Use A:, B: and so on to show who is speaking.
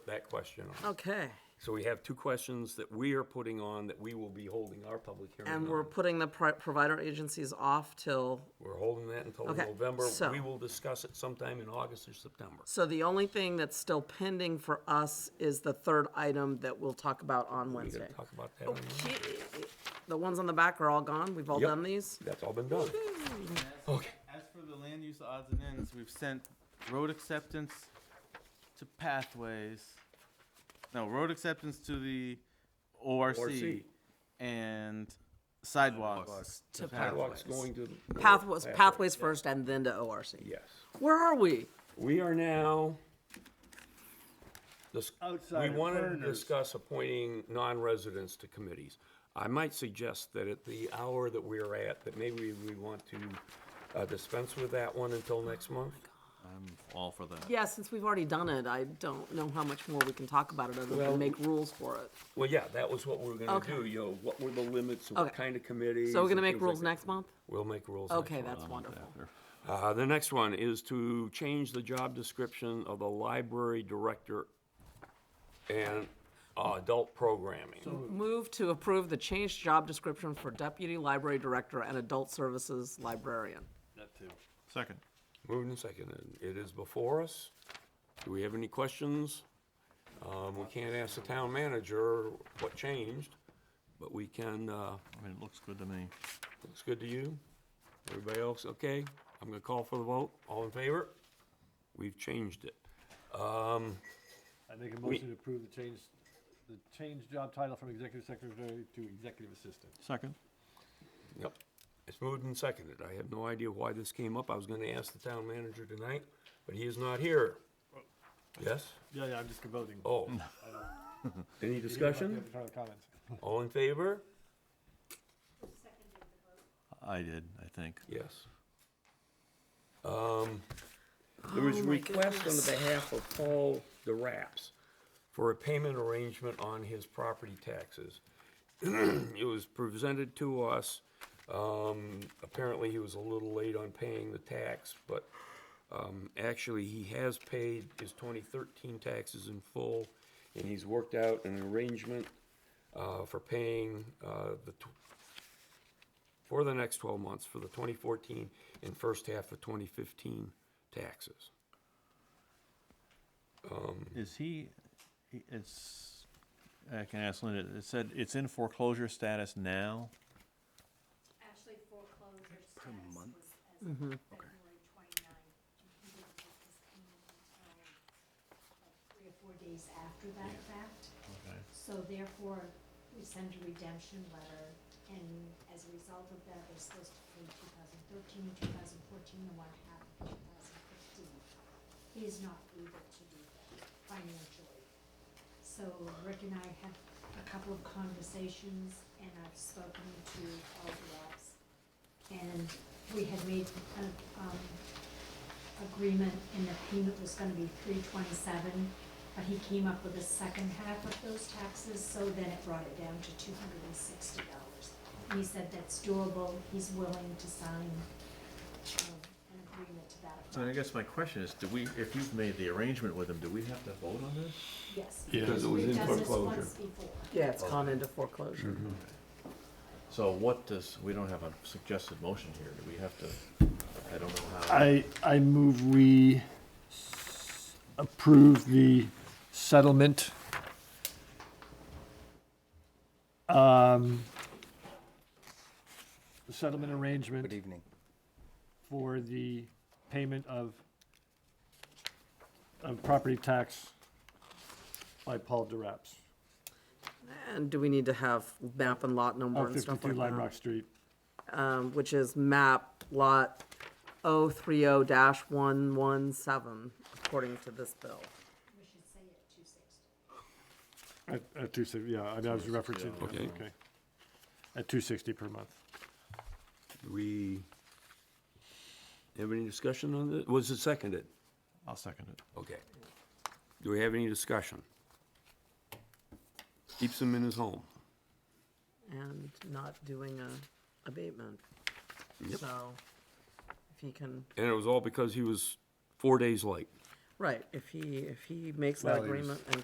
A: that question on.
B: Okay,
A: So we have two questions that we are putting on that we will be holding our public hearing
B: and we're
A: on.
B: putting the pri- provider agencies off till,
A: We're holding that until
B: Okay,
A: November.
B: so-
A: We will discuss it sometime in August or September.
B: so the only thing that's still pending for us is the third item that we'll talk about on
A: We're
B: Wednesday. Oh,
A: gonna talk about that. on Monday.
B: The ones on the back are all gone, we've all
A: Yep.
B: done these?
A: That's all been done. Okay.
C: As for the land use odds and ends, we've sent road acceptance to pathways. No, road acceptance to the ORC
A: ORC.
C: and sidewalks.
B: To
A: Sidewalks going to. the-
B: Pathways, pathways first and then to ORC.
A: Yes.
B: Where are we?
A: We are now. This, we
C: Outside of
A: want to
C: Verner's.
A: discuss appointing non-residents to committees. I might suggest that at the hour that we're at, that maybe we want to uh, dispense with that one until next
B: Oh
A: month.
D: all for that.
B: Yeah, since we've already done it, I don't know how much more we can talk about it other
A: Well-
B: than make rules for it.
A: Well, yeah, that was what we were gonna
B: Okay.
A: do, you know, what were the limits, of what
B: Okay.
A: kind of committees.
B: So we're gonna
A: and
B: make
A: things like
B: rules
A: that.
B: next month?
A: We'll make rules next
B: Okay,
A: month.
B: that's wonderful.
A: Uh, the next one is to change the job description of the library director and uh, adult programming.
B: Move to approve the changed job description for deputy library director and adult services librarian.
D: Second.
A: Moved and seconded. It is before us. Do we have any questions? Um, we can't ask the town manager what changed, but we can, uh,
D: I mean, it looks good to me.
A: looks good to you? Everybody else, okay? I'm gonna call for the vote. All in favor? We've changed it. Um,
E: I make a motion to approve the change, the change job title from executive secretary to executive assistant.
D: Second.
A: Yep. It's moved and seconded. I have no idea why this came up. I was gonna ask the town manager tonight, but he is not here. Yes?
E: Yeah, yeah, I'm just voting.
A: Oh. Any discussion? All in favor?
D: I did, I think.
A: Yes. Um, there was a request on the behalf of Paul the Raps for a payment arrangement on his property taxes. It was presented to us, um, apparently he was a little late on paying the tax, but, um, actually, he has paid his twenty thirteen taxes in full, and he's worked out an arrangement, uh, for paying, uh, the tw- for the next 12 months for the 2014 and first half of 2015 taxes.
D: Is he, he- it's, I can ask Linda, it said it's in foreclosure status now?
F: actually foreclosure status was as of February twenty-ninth. And he didn't get this payment until like three or four days after that fact.
D: Okay.
F: So therefore, we send a redemption letter, and as a result of that, they're supposed to pay 2013, 2014, and one half of two thousand fifteen. He is not able to do that financially. So Rick and I had a couple of conversations, and I've spoken to all the reps. And we had made an um, agreement, and the payment was gonna be three twenty-seven, but he came up with the second half of those taxes, so then it brought it down to two hundred and sixty dollars. And he said that's doable, he's willing to sign um, an agreement to that
D: So I
F: effect.
D: guess my question is, do we, if you've made the arrangement with him, do we have to vote on this?
F: Yes.
A: Because it was in
F: We've done this
A: foreclosure.
F: once before.
B: Yeah, it's gone into foreclosure.
D: So what does, we don't have a suggested motion here. Do we have to, I don't know how.
E: I, I move we s- approve the settlement um, the settlement arrangement. Good evening. For the payment of of property tax by Paul DeRaps.
B: And do we need to have map and lot number
E: Of
B: and stuff
E: fifty-two
B: like
E: Lime
B: that?
E: Rock Street.
B: Um, which is map lot oh three oh dash one one seven, according to this bill.
F: We should say it two sixty.
E: At, at two sixty, yeah, I mean, I was referencing, yeah,
A: Okay.
E: okay. At two sixty per month.
A: Do we have any discussion on this? Was it seconded?
D: I'll second it.
A: Okay. Do we have any discussion? Keeps him in his home.
B: and not doing a abatement. So, if he can,
A: And it was all because he was four days late.
B: right, if he, if he makes that
E: Well, he was-
B: agreement and